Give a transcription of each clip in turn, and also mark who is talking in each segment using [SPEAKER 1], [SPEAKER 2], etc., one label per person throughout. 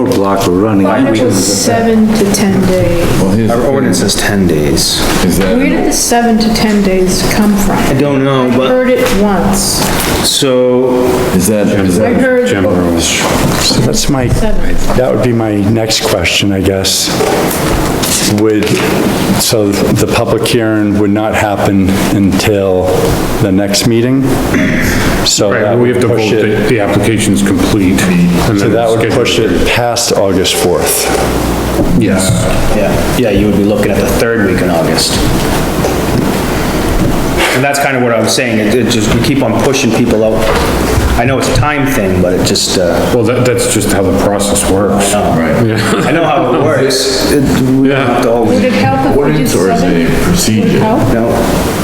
[SPEAKER 1] roadblock we're running.
[SPEAKER 2] Thought it was seven to 10 days.
[SPEAKER 3] Well, here's the
[SPEAKER 4] Our
[SPEAKER 3] thing,
[SPEAKER 4] ordinance says 10 days.
[SPEAKER 3] Is
[SPEAKER 2] Where did
[SPEAKER 3] that,
[SPEAKER 2] the seven to 10 days come from? I
[SPEAKER 4] don't know, but-
[SPEAKER 2] Heard it once,
[SPEAKER 4] So,
[SPEAKER 3] is that, is
[SPEAKER 2] I
[SPEAKER 3] that,
[SPEAKER 2] heard
[SPEAKER 5] So that's my,
[SPEAKER 2] seven.
[SPEAKER 5] that would be my next question, I guess. Would, so the public hearing would not happen until the next meeting? So
[SPEAKER 6] Right,
[SPEAKER 5] that
[SPEAKER 6] well, we have
[SPEAKER 5] would
[SPEAKER 6] to vote
[SPEAKER 5] push
[SPEAKER 6] that
[SPEAKER 5] it,
[SPEAKER 6] the application's complete. and
[SPEAKER 5] so
[SPEAKER 6] then
[SPEAKER 5] that would
[SPEAKER 6] schedule.
[SPEAKER 5] push it past August 4th.
[SPEAKER 6] Yes,
[SPEAKER 4] yeah, yeah, you would be looking at the third week in August. And that's kind of what I was saying, it it just, we keep on pushing people out. I know it's a time thing, but it just, uh,
[SPEAKER 6] well, that, that's just how the process works.
[SPEAKER 4] I know how it works. It- we don't have to
[SPEAKER 2] Would
[SPEAKER 4] always-
[SPEAKER 2] it help if we did
[SPEAKER 3] Ordinance or is
[SPEAKER 2] seven?
[SPEAKER 3] it a procedure?
[SPEAKER 2] Would it help?
[SPEAKER 4] No.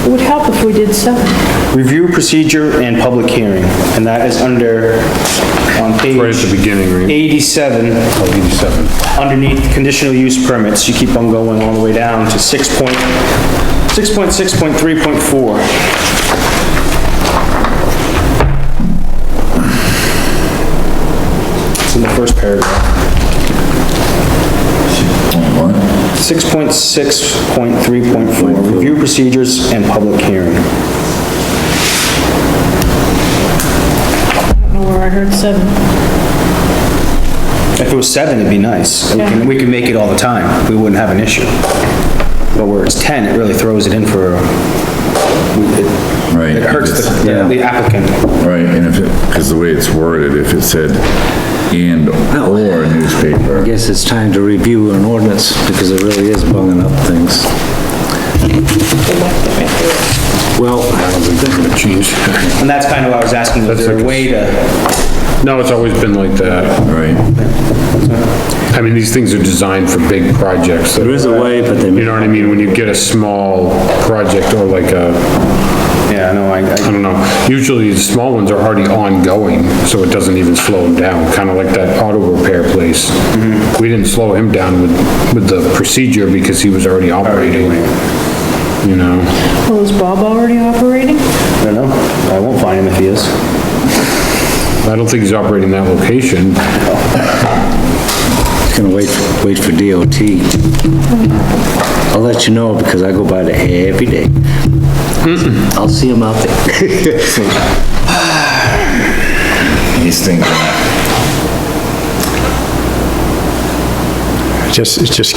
[SPEAKER 2] It would help if we did seven.
[SPEAKER 4] Review procedure and public hearing, and that is under, on page...
[SPEAKER 6] Right at the beginning, right?
[SPEAKER 4] 87. 87. Underneath conditional use permits, you keep on going all the way down to 6 point, 6.6.3.4. It's in the first paragraph. 6.6.3.4, review procedures and public hearing.
[SPEAKER 2] I don't know where I heard seven.
[SPEAKER 4] If it was seven, it'd be nice. We can, we can make it all the time. We wouldn't have an issue. But where it's 10, it really throws it in for,
[SPEAKER 3] right?
[SPEAKER 4] it hurts
[SPEAKER 3] it's-
[SPEAKER 4] the the applicant.
[SPEAKER 3] Right, and if, because the way it's worded, if it said and/or
[SPEAKER 1] I
[SPEAKER 3] newspaper,
[SPEAKER 1] guess it's time to review an ordinance because it really is bunging up things. Well,
[SPEAKER 4] And that's kind of why I was asking, is there a way to,
[SPEAKER 6] No, it's always been like that.
[SPEAKER 3] right?
[SPEAKER 6] I mean, these things are designed for big projects. that-
[SPEAKER 1] there is a way, but they,
[SPEAKER 6] You know what I mean? When you get a small project or like a,
[SPEAKER 4] yeah, no, I,
[SPEAKER 6] I
[SPEAKER 4] I-
[SPEAKER 6] don't know, usually the small ones are already ongoing, so it doesn't even slow them down, kind of like that auto repair place.
[SPEAKER 5] Mm-hmm.
[SPEAKER 6] We didn't slow him down with, with the procedure because he was already operating, you know?
[SPEAKER 2] Well, is Bob already operating?
[SPEAKER 4] I don't know. I won't find him if he is.
[SPEAKER 6] I don't think he's operating that location.
[SPEAKER 1] it's gonna wait, wait for DOT. I'll let you know because I go by there every day. I'll see him out there.
[SPEAKER 3] These things, are-
[SPEAKER 5] Just, it's just,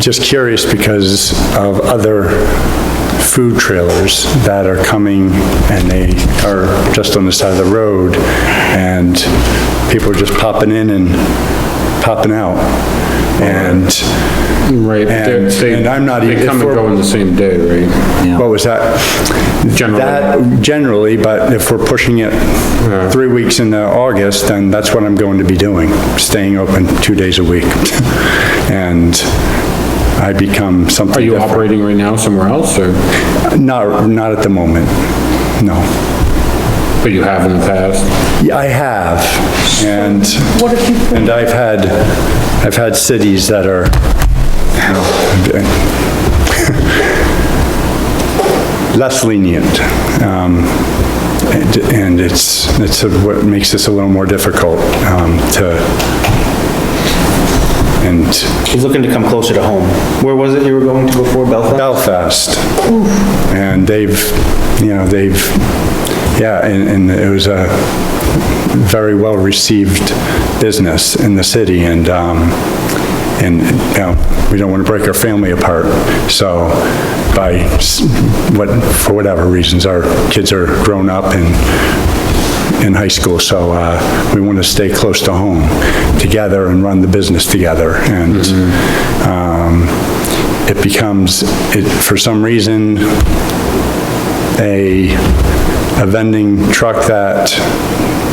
[SPEAKER 5] just curious because of other food trailers that are coming and they are just on the side of the road and people are just popping in and popping out. And,
[SPEAKER 6] Right. but they're-
[SPEAKER 5] And-
[SPEAKER 6] they-
[SPEAKER 5] and I'm not
[SPEAKER 6] They
[SPEAKER 5] even-
[SPEAKER 6] come and go on the same day, right?
[SPEAKER 5] what was that?
[SPEAKER 6] Generally.
[SPEAKER 5] That generally, but if we're pushing it three weeks into August, then that's what I'm going to be doing, staying open two days a week. And I become
[SPEAKER 6] Are
[SPEAKER 5] something
[SPEAKER 6] you
[SPEAKER 5] different.
[SPEAKER 6] operating right now somewhere else, or,
[SPEAKER 5] Not, not at the moment, no.
[SPEAKER 6] but you have in the past?
[SPEAKER 5] Yeah, I have, and,
[SPEAKER 2] What if you put
[SPEAKER 5] and I've had, I've had cities that are, you know, less lenient. Um, And and it's, it's what makes this a little more difficult um, to, and
[SPEAKER 4] He's looking to come closer to home. Where was it you were going to before Belfast?
[SPEAKER 5] Belfast. And they've, you know, they've, yeah, and, and it was a very well-received business in the city, and, um, and, you know, we don't want to break our family apart, so by, s- what, for whatever reasons, our kids are grown up and in high school, so, uh, we want to stay close to home together and run the business together, and, um, it becomes, it, for some reason, a, a vending truck that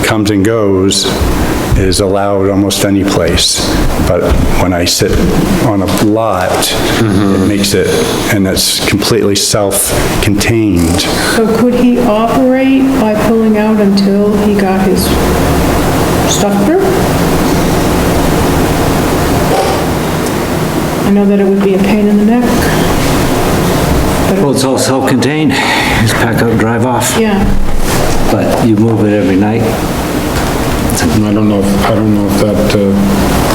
[SPEAKER 5] comes and goes is allowed almost any place. But when I sit on a lot, it makes it, and it's completely self-contained.
[SPEAKER 2] So could he operate by pulling out until he got his stuff through? I know that it would be a pain in the neck,
[SPEAKER 1] Well, it's all self-contained. Just pack up, drive off,
[SPEAKER 2] yeah.
[SPEAKER 1] but you move it every night.
[SPEAKER 6] I don't know, if- I don't know if that, uh,